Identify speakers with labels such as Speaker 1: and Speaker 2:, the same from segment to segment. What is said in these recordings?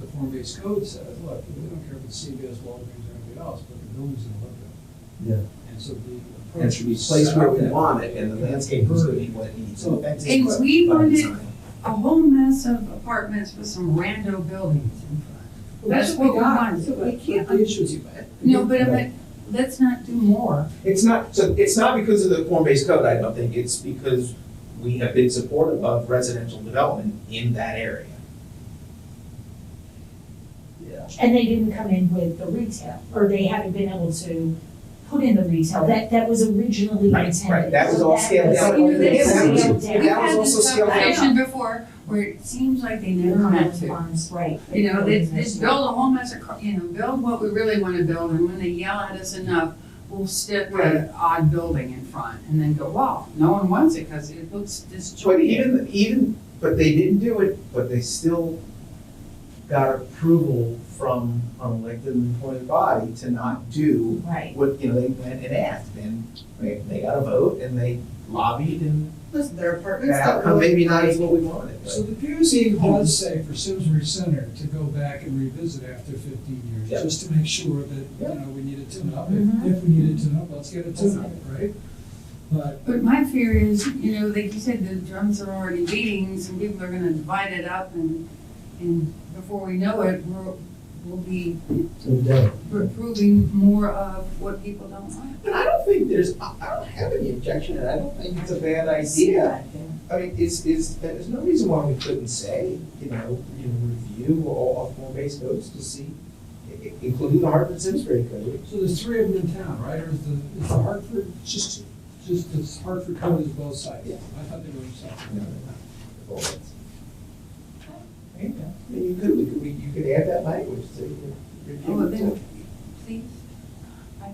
Speaker 1: the form-based code says, look, we don't care if it's CVS, Walgreens, or anybody else, but the building's in the look
Speaker 2: Yeah.
Speaker 1: And so the.
Speaker 3: And it should be placed where we want it, and the landscaper's gonna need what it needs.
Speaker 1: So-
Speaker 3: That's
Speaker 4: And
Speaker 3: what
Speaker 4: we
Speaker 3: by
Speaker 4: wanted-
Speaker 3: design.
Speaker 4: a whole mess of apartments with some rando buildings in front. That's what we want.
Speaker 1: So
Speaker 4: We can't-
Speaker 1: The issue is you had.
Speaker 4: No, but I'm like, let's not do more.
Speaker 3: It's not, so it's not because of the form-based code, I don't think, it's because we have been supportive of residential development in that area.
Speaker 5: And they didn't come in with the retail, or they haven't been able to put in the retail, that, that was originally
Speaker 3: Right,
Speaker 5: intended.
Speaker 3: right. That was all
Speaker 5: So
Speaker 3: scaled
Speaker 5: was-
Speaker 3: down.
Speaker 5: it was
Speaker 4: This is-
Speaker 5: scaled down.
Speaker 3: But
Speaker 4: We've
Speaker 3: that was
Speaker 4: had
Speaker 3: also
Speaker 4: this
Speaker 3: scaled down.
Speaker 4: conversation before where it seems like they never meant to.
Speaker 5: Right.
Speaker 4: You know, they they just build a whole mess of, cr- you know, build what we really want to build and when they yell at us enough, we'll stick with an odd building in front and then go, wow, no one wants it because it looks
Speaker 3: But
Speaker 4: disjointed.
Speaker 3: even, even, but they didn't do it, but they still got approval from an elected and appointed body to not do
Speaker 5: Right.
Speaker 3: what, you know, they went and asked, and they, they got a vote, and they lobbied, and
Speaker 6: Listen, there are apartments
Speaker 3: that
Speaker 6: that
Speaker 3: outcome
Speaker 6: really.
Speaker 3: maybe not is what we wanted,
Speaker 1: So
Speaker 3: but.
Speaker 1: the PUC does say for Simsbury Center to go back and revisit after fifteen years,
Speaker 3: Yeah.
Speaker 1: just to make sure that, you
Speaker 3: Yeah.
Speaker 1: know, we need a tune-up.
Speaker 5: Mhm.
Speaker 4: Mm-hmm.
Speaker 1: If if we need a tune-up, let's get a tune-up, right? But
Speaker 4: But my fear is, you know, like you said, the drums are already beating, some people are gonna divide it up and, and before we know it, we're, we'll be approving more of what people don't want.
Speaker 3: But I don't think there's, I I don't have any objection, and I don't think it's a bad idea. I mean, is, is, there's no reason why we couldn't say, you know, you know, review all form based codes to see, i- i- including the Hartford Simsbury code.
Speaker 1: So there's three of them in town, right, or is the, is the Hartford? Just two. Just, the Hartford code is both sides?
Speaker 3: Yeah.
Speaker 1: I thought they were separate.
Speaker 3: No, no, no. All that's- I mean, you could, we could, we- you could add that language to your
Speaker 4: Oh,
Speaker 3: review.
Speaker 4: then, please. I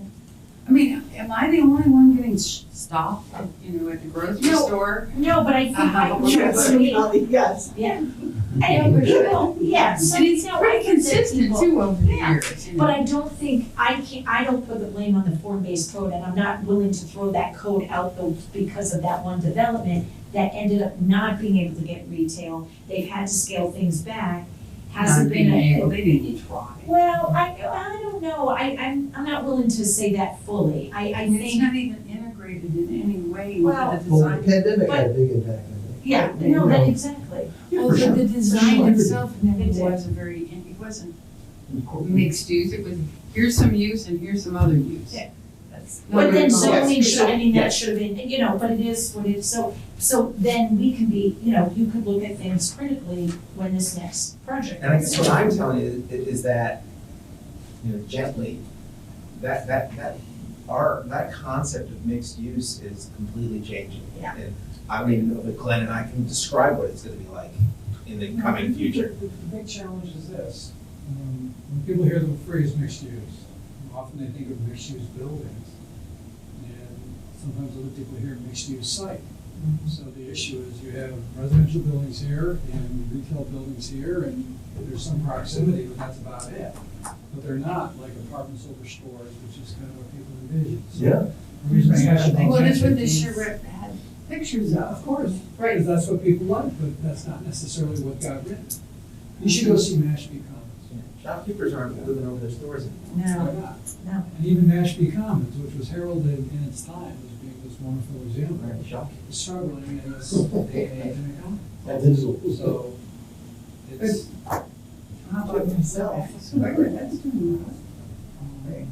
Speaker 4: I mean, am I the only one getting sh- stopped, you know, at the grocery
Speaker 5: No.
Speaker 4: store?
Speaker 5: No, but I think I,
Speaker 4: Uh-huh.
Speaker 5: yes, we-
Speaker 6: Yes.
Speaker 5: yeah. And, you know, yeah, so,
Speaker 4: And it's
Speaker 5: no, I
Speaker 4: pretty
Speaker 5: think that
Speaker 4: consistent
Speaker 5: people-
Speaker 4: too over the
Speaker 5: Yeah.
Speaker 4: years. you
Speaker 5: But
Speaker 4: know.
Speaker 5: I don't think, I can't, I don't put the blame on the form-based code, and I'm not willing to throw that code out though because of that one development that ended up not being able to get retail. They've had to scale things back, hasn't
Speaker 4: Not being
Speaker 5: been
Speaker 4: able,
Speaker 5: a.
Speaker 4: they didn't even try.
Speaker 5: Well, I, I don't know, I, I'm, I'm not willing to say that fully, I, I
Speaker 4: And it's
Speaker 5: think,
Speaker 4: not even integrated in any way into
Speaker 5: Well-
Speaker 4: the
Speaker 2: Well, the
Speaker 4: design.
Speaker 2: pandemic had a big impact, I think.
Speaker 5: yeah, no, that exactly.
Speaker 4: Well, the- the design
Speaker 2: Sure.
Speaker 4: itself never
Speaker 5: It did.
Speaker 4: was a very, it wasn't mixed use, it was, here's some use and here's some other use.
Speaker 5: Yeah.
Speaker 4: That's.
Speaker 5: But then
Speaker 3: so-
Speaker 5: zoning
Speaker 3: Yes.
Speaker 5: should, I mean, that
Speaker 3: Yes.
Speaker 5: should have been, you know, but it is what it is, so, so then we can be, you know, you could look at things critically when this next project.
Speaker 3: And I guess what I'm telling you is, is that, you know, gently, that, that, that, our, that concept of mixed use is completely changing.
Speaker 5: Yeah.
Speaker 3: And I don't even know if Glenn and I can describe what it's gonna be like in the coming future.
Speaker 1: The the big challenge is this, um, when people hear the phrase mixed use, often they think of mixed use buildings. And sometimes other people hear mixed use site.
Speaker 4: Mm-hmm.
Speaker 1: So the issue is you have residential buildings here and retail buildings here and there's some proximity, but that's about it. But they're not like apartments over stores, which is kind of what people envision. So
Speaker 2: Yeah.
Speaker 1: the reason I asked about
Speaker 4: Well, that's what the
Speaker 1: mixed use-
Speaker 4: charrette had pictures
Speaker 1: Yeah,
Speaker 4: of.
Speaker 1: uh, of course, right, if that's what people want, but that's not necessarily what got written. You should go see Mashpee Commons.
Speaker 3: Shopkeepers aren't living over their stores anymore.
Speaker 1: Why
Speaker 5: No,
Speaker 1: not?
Speaker 5: no.
Speaker 1: And even Mashpee Commons, which was heralded in its time as being this wonderful example,
Speaker 3: Right, shopkeepers.
Speaker 1: is struggling in this day and age in economy.
Speaker 2: All digital.
Speaker 1: So it's,
Speaker 4: How about
Speaker 3: Myself.
Speaker 4: Square, that's doing well.
Speaker 1: um,
Speaker 3: Right.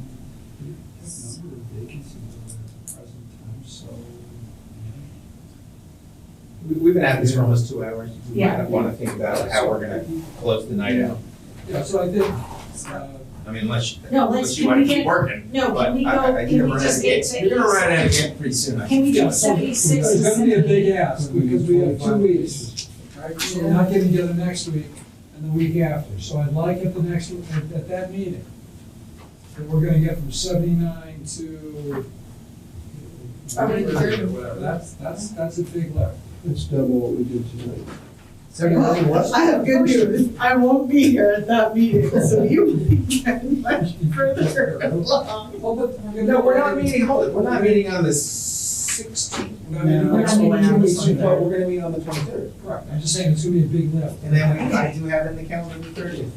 Speaker 1: the number of vacancies at the present time, so.
Speaker 3: We, we've been at this for almost two hours. We might
Speaker 5: Yeah.
Speaker 3: wanna think about how we're gonna close the night out.
Speaker 1: Yeah, so I think, uh,
Speaker 3: I mean, unless,
Speaker 5: No, let's-
Speaker 3: unless you
Speaker 5: can
Speaker 3: wanna
Speaker 5: we
Speaker 3: keep
Speaker 5: get-
Speaker 3: working.
Speaker 5: No,
Speaker 3: But
Speaker 5: can we
Speaker 3: I- I- I
Speaker 5: go,
Speaker 3: think
Speaker 5: can
Speaker 3: you're
Speaker 5: we
Speaker 3: running
Speaker 5: just
Speaker 3: out of
Speaker 5: get
Speaker 3: gas.
Speaker 5: to?
Speaker 3: You're gonna run out of
Speaker 5: 86?
Speaker 3: gas pretty soon. I
Speaker 5: Can we
Speaker 3: think.
Speaker 1: Yeah,
Speaker 5: do
Speaker 1: so-
Speaker 5: seventy-six to
Speaker 1: It's gonna be a big ask, because we have two
Speaker 2: 25.
Speaker 1: weeks, right, so we're not getting together next week and the week after, so I'd like at the next, at, at that meeting, that we're gonna get from seventy-nine to
Speaker 4: Or
Speaker 1: whatever,
Speaker 4: whatever.
Speaker 1: or whatever, that's, that's, that's a big lift.
Speaker 2: It's double what we did tonight.
Speaker 3: Seventy-nine what?
Speaker 6: I have good news, I won't be here at that meeting, so you can much further along.
Speaker 1: Well, but we're gonna-
Speaker 3: No, we're not meeting, hold it, we're not meeting on the sixteenth.
Speaker 1: We're not meeting
Speaker 6: No,
Speaker 1: next
Speaker 6: I'm
Speaker 1: week,
Speaker 6: away
Speaker 1: two
Speaker 6: on the
Speaker 1: weeks from
Speaker 6: Sunday.
Speaker 1: now.
Speaker 3: We're gonna meet on the twenty-third.
Speaker 1: Correct, I'm just saying, it's gonna be a big lift.
Speaker 3: And then we, I do have it in the calendar the thirtieth.